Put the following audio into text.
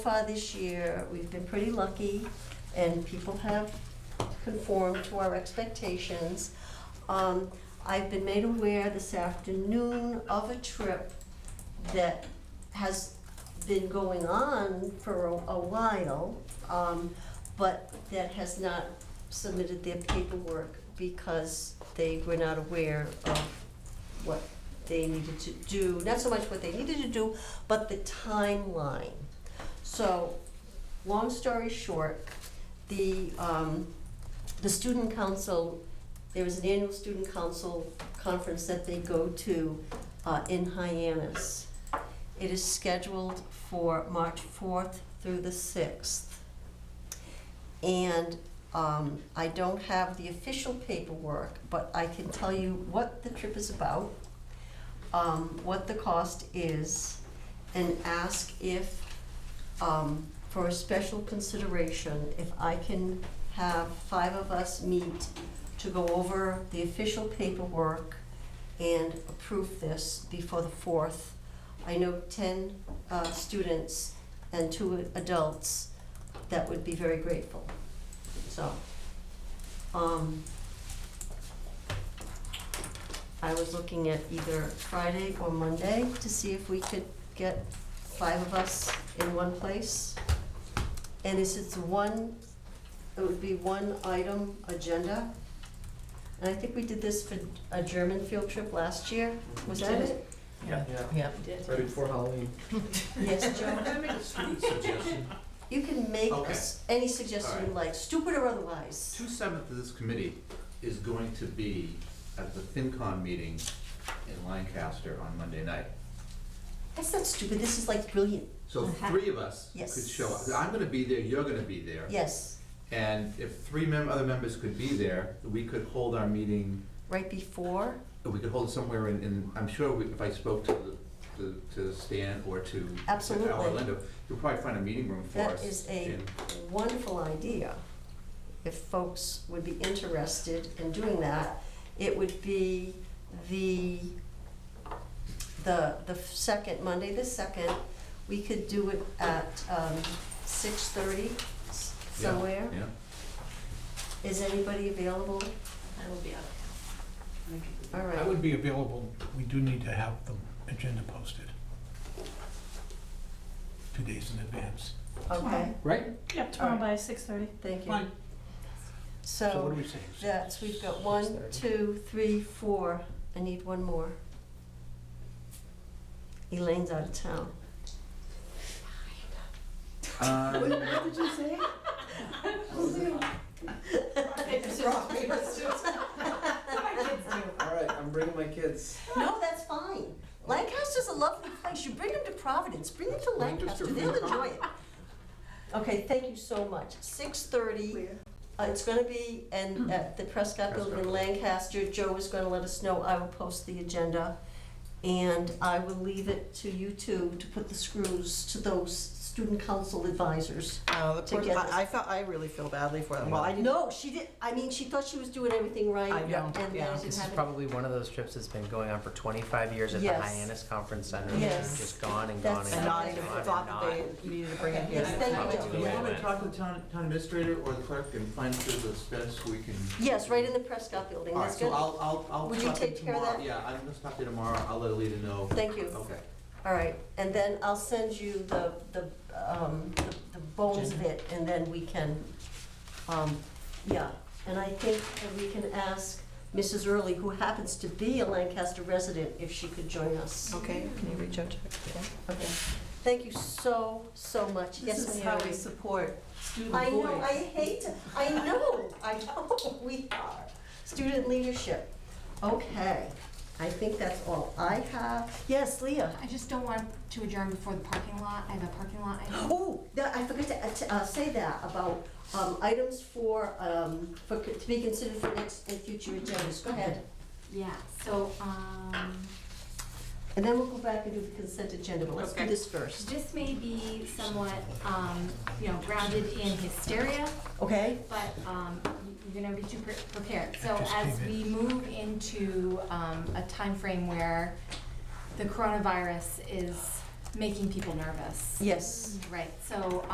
far this year, we've been pretty lucky, and people have conformed to our expectations. Um, I've been made aware this afternoon of a trip that has been going on for a, a while, um, but that has not submitted their paperwork because they were not aware of what they needed to do, not so much what they needed to do, but the timeline. So, long story short, the, um, the student council, there is an annual student council conference that they go to, uh, in Hyannis. It is scheduled for March fourth through the sixth. And, um, I don't have the official paperwork, but I can tell you what the trip is about, um, what the cost is, and ask if um, for a special consideration, if I can have five of us meet to go over the official paperwork and approve this before the fourth. I know ten, uh, students and two adults that would be very grateful, so. Um, I was looking at either Friday or Monday to see if we could get five of us in one place. And this is one, it would be one item agenda. And I think we did this for a German field trip last year, was that it? Yeah. Yeah. Right before Halloween. Yes, Joe? Can I make a stupid suggestion? You can make Okay. us any suggestion you Alright. like, stupid or otherwise. Two seventh of this committee is going to be at the FinCon meeting in Lancaster on Monday night. That's not stupid, this is like brilliant, So Uh-huh. three of us Yes. could show up. I'm gonna be there, you're gonna be there. yes, And if three mem- other members could be there, we could hold our meeting, right before, we could hold it somewhere in, in, I'm sure we- if I spoke to the, to- to Stan or to to Absolutely. Orlando, you'll probably find a meeting room for that us. is a in- wonderful idea. If folks would be interested in doing that, it would be the, the, the second, Monday the second. We could do it at, um, six thirty yeah, somewhere. Yeah. Is anybody available? I will be out. All I right, would be available, we do need to have the agenda posted. Two days in advance. okay, Right. Yeah, tomorrow by six thirty. thank you. Fine. So what So, do we say? that's, we've got one, 6:30. two, three, four. I need one more. Elaine's out of town. Um, All right, I'm bringing my kids. No, that's fine. Lancaster's a lovely place. You bring them to Providence, bring them to Lancaster, Lancaster, they'll Vermont. enjoy it. Okay, thank you so much. Six thirty, uh, it's gonna be, and at the Prescott Building in Prescott. Lancaster, Joe is gonna let us know. I will post the agenda. And I will leave it to you two to put the screws to those student council advisors. Oh, the To poor, get this- I, I felt, I really feel badly for them. Well, I didn't, No, she did, I mean, she thought she was doing everything right. I know, and then yeah. it This is happened. probably one of those trips that's been going on for 25 years at the Yes. Hyannis Conference Center. and Yes. Just gone and gone and That's- gone. and not and even gone and thought not. that they needed to bring it Yes, in. thank you, Joe. Do you want me to talk to the town, town administrator or the clerk and find through the specs we can? Yes, right in the Prescott Building. All right, That's good. so I'll, I'll, I'll. Would you talk to take care of tomorrow. that? Yeah, I'm gonna stop there tomorrow, I'll let Alita know. Thank you. Okay. All right, and then I'll send you the, the, um, the- the bones of it, and then we can, um, yeah. And I think that we can ask Mrs. Early, who happens to be a Lancaster resident, if she could join us. Okay, can you reach out to her? Okay. Thank you so, so much. Yes, This is how Mary. we support student voice. I know, I hate, to- I know, I know, we are. Student leadership. Okay, I think that's all I have. Yes, Leah? I just don't want to adjourn before the parking lot, I have a parking lot item. Oh, that, I forgot to, uh, to, uh, say that about, um, items for, um, for, co- to be considered for next and future agendas, go ahead. Yeah, so, um, And then we'll go back and do the consent agenda, but let's do Okay. this first. this may be somewhat, um, you know, grounded in hysteria, Okay? but, um, you're gonna be too pre- prepared. So just as came we in. move into, um, a timeframe where the coronavirus is making people nervous. Yes. Right, so